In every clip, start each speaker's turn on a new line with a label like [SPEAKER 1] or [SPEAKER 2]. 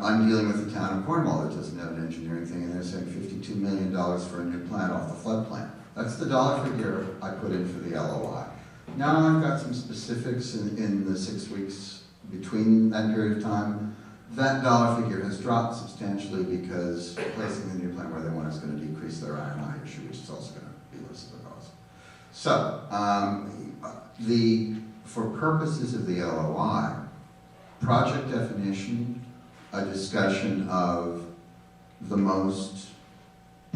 [SPEAKER 1] I'm dealing with the town of Cornwall that doesn't have an engineering thing, and they're saying fifty-two million dollars for a new plant off the flood plan. That's the dollar figure I put in for the LOI. Now I've got some specifics in, in the six weeks between that period of time. That dollar figure has dropped substantially because placing the new plant where they want is gonna decrease their INI issue, which is also gonna be less of a cost. So, um, the, for purposes of the LOI, project definition, a discussion of the most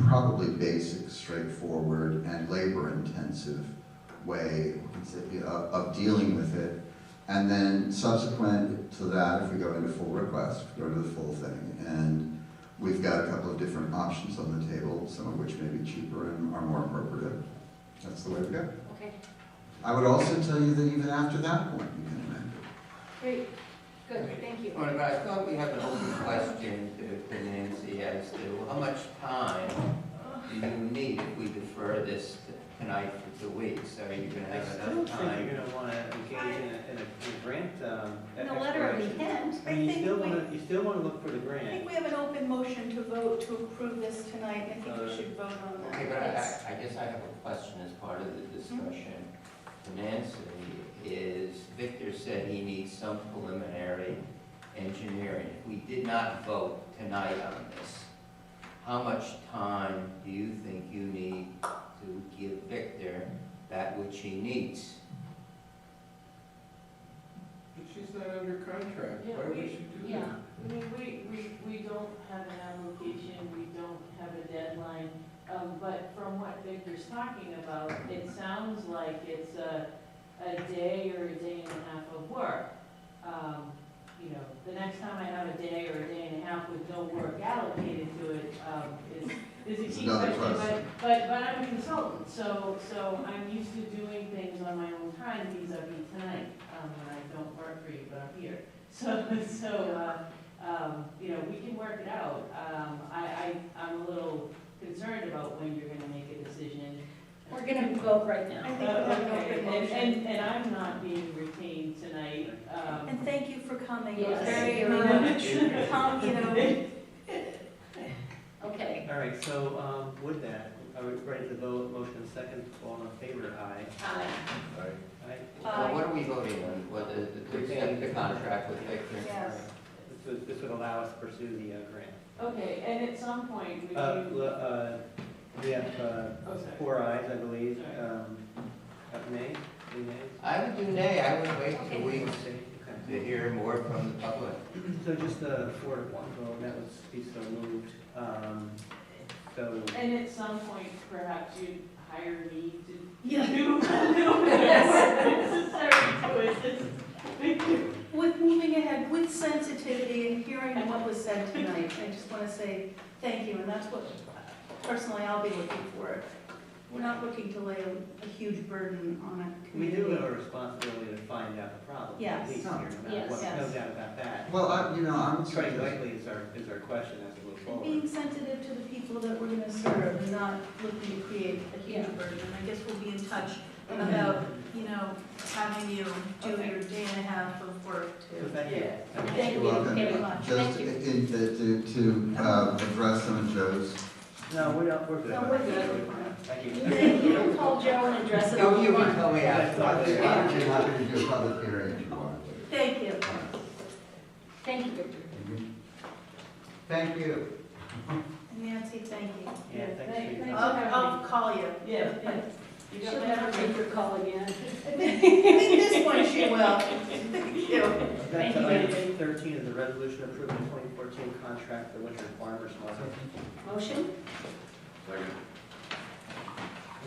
[SPEAKER 1] probably basic, straightforward, and labor-intensive way of, of dealing with it. And then subsequent to that, if we go into full request, go to the full thing. And we've got a couple of different options on the table, some of which may be cheaper and are more appropriate. That's the way to go.
[SPEAKER 2] Okay,
[SPEAKER 1] I would also tell you that even after that point, you can amend it.
[SPEAKER 2] great, good, thank you.
[SPEAKER 3] All right, I thought we had an open question to- to Nancy as to how much time do you need if we defer this to- tonight for two weeks? Are you gonna
[SPEAKER 4] I
[SPEAKER 3] have
[SPEAKER 4] still
[SPEAKER 3] enough
[SPEAKER 4] think you're
[SPEAKER 3] time?
[SPEAKER 4] gonna wanna engage in a, in a in a grant, um, e-
[SPEAKER 5] In the letter of
[SPEAKER 4] exploration.
[SPEAKER 5] intent,
[SPEAKER 4] I
[SPEAKER 5] I
[SPEAKER 4] mean, you
[SPEAKER 5] think
[SPEAKER 4] still
[SPEAKER 5] we,
[SPEAKER 4] wanna, you still wanna look for the
[SPEAKER 5] I
[SPEAKER 4] grant.
[SPEAKER 5] think we have an open motion to vote to approve this tonight, I think we
[SPEAKER 4] Uh,
[SPEAKER 5] should vote on that.
[SPEAKER 3] Okay, but I,
[SPEAKER 5] It's-
[SPEAKER 3] I I guess I have a question as part of the discussion. to Nancy is, Victor said he needs some preliminary engineering. If we did not vote tonight on this, how much time do you think you need to give Victor that which he needs?
[SPEAKER 6] But she's not under contract,
[SPEAKER 7] Yeah,
[SPEAKER 6] why would
[SPEAKER 7] we-
[SPEAKER 6] she do
[SPEAKER 7] yeah.
[SPEAKER 6] that?
[SPEAKER 7] I mean, we, we, we don't have an application, we don't have a deadline, um, but from what Victor's talking about, it sounds like it's a, a day or a day and a half of work. Um, you know, the next time I have a day or a day and a half with no work allocated to it, um, is, is a key
[SPEAKER 1] Another
[SPEAKER 7] question, but,
[SPEAKER 1] question.
[SPEAKER 7] but, but I'm a consultant, so, so I'm used to doing things on my own time, these are me tonight, um, when I don't work for you, but I'm here. So, so, uh, um, you know, we can work it out. Um, I, I, I'm a little concerned about when you're gonna make a decision. Uh,
[SPEAKER 5] We're gonna vote right now. I think we have an
[SPEAKER 7] Okay,
[SPEAKER 5] open
[SPEAKER 7] and-
[SPEAKER 5] motion.
[SPEAKER 7] And, and I'm not being retained tonight, um.
[SPEAKER 5] And thank you for coming, it was
[SPEAKER 7] Yes.
[SPEAKER 5] very,
[SPEAKER 7] You're
[SPEAKER 5] um, calm, you know. Okay.
[SPEAKER 4] All right, so, um, with that, are we ready to vote, motion and second, all in favor, aye?
[SPEAKER 5] Uh,
[SPEAKER 6] Right.
[SPEAKER 4] Aye,
[SPEAKER 3] Well, what are we voting on, whether to accept the contract with Victor?
[SPEAKER 5] Yes.
[SPEAKER 4] this would, this would allow us to pursue the uh, grant.
[SPEAKER 7] Okay, and at some point, we
[SPEAKER 4] Uh,
[SPEAKER 7] can,
[SPEAKER 4] l- uh, we have, uh,
[SPEAKER 7] Oh, sorry.
[SPEAKER 4] four ayes, I believe, um, uh, nay, three nays?
[SPEAKER 3] I would do nay, I would wait
[SPEAKER 5] Okay.
[SPEAKER 3] two weeks
[SPEAKER 4] Okay.
[SPEAKER 3] to hear more from the public.
[SPEAKER 4] So just a four to one vote, that was be so moved, um, so.
[SPEAKER 7] and at some point, perhaps you'd hire me to
[SPEAKER 5] Yeah.
[SPEAKER 7] do a little bit of work necessary to assist
[SPEAKER 5] With moving ahead with sensitivity and hearing what was said tonight, I just wanna say thank you, and that's what, personally, I'll be looking for. We're not looking to lay a, a huge burden on a
[SPEAKER 4] We
[SPEAKER 5] community.
[SPEAKER 4] do have a responsibility to find out the problem.
[SPEAKER 5] Yes.
[SPEAKER 4] At least here, no matter
[SPEAKER 5] Yes,
[SPEAKER 4] what, no
[SPEAKER 5] yes.
[SPEAKER 4] doubt about that.
[SPEAKER 1] Well, I, you know, I'm.
[SPEAKER 4] Treading lightly is our, is our question as we move forward.
[SPEAKER 5] Being sensitive to the people that we're gonna serve and not looking to create a huge burden. And I guess we'll be in touch about, you know, having you do your day and a half of work
[SPEAKER 4] So
[SPEAKER 5] too.
[SPEAKER 4] thank you.
[SPEAKER 7] Yeah.
[SPEAKER 4] Thank you.
[SPEAKER 5] Thank you very much.
[SPEAKER 1] Just in,
[SPEAKER 5] Thank you.
[SPEAKER 1] in- to, to, uh, address some of Joe's
[SPEAKER 4] No, we're not, we're good.
[SPEAKER 5] No, we're good.
[SPEAKER 4] Thank you.
[SPEAKER 5] Then you can call Joe and address it.
[SPEAKER 3] No, Oh, you can tell me after.
[SPEAKER 1] Why don't you- why
[SPEAKER 3] I
[SPEAKER 1] don't you have to do a public hearing if you want
[SPEAKER 5] Thank you.
[SPEAKER 2] Thank you,
[SPEAKER 1] to?
[SPEAKER 2] Victor.
[SPEAKER 1] Thank you.
[SPEAKER 5] Nancy, thank you.
[SPEAKER 4] Yeah, thanks for your
[SPEAKER 7] Thank-
[SPEAKER 5] I'll,
[SPEAKER 4] time.
[SPEAKER 5] I'll call you.
[SPEAKER 7] Yeah, yeah.
[SPEAKER 5] At
[SPEAKER 7] You
[SPEAKER 2] She'll
[SPEAKER 7] don't have
[SPEAKER 2] never
[SPEAKER 7] to
[SPEAKER 2] make your call again.
[SPEAKER 5] this point, she will. Thank you.
[SPEAKER 4] Back
[SPEAKER 7] Thank
[SPEAKER 4] to
[SPEAKER 7] you.
[SPEAKER 4] item thirteen is the resolution approving twenty fourteen contract for winter farmers market.
[SPEAKER 2] Motion?
[SPEAKER 4] If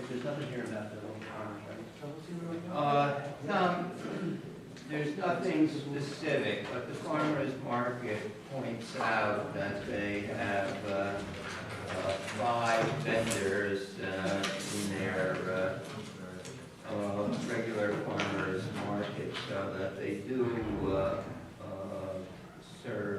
[SPEAKER 4] There's nothing here about the winter farmers market.
[SPEAKER 3] Uh, Tom, there's nothing specific, but the farmer's market points out that they have uh, uh, five vendors uh, in their uh, uh, regular farmer's market, so that they do uh, uh, serve uh, Uh,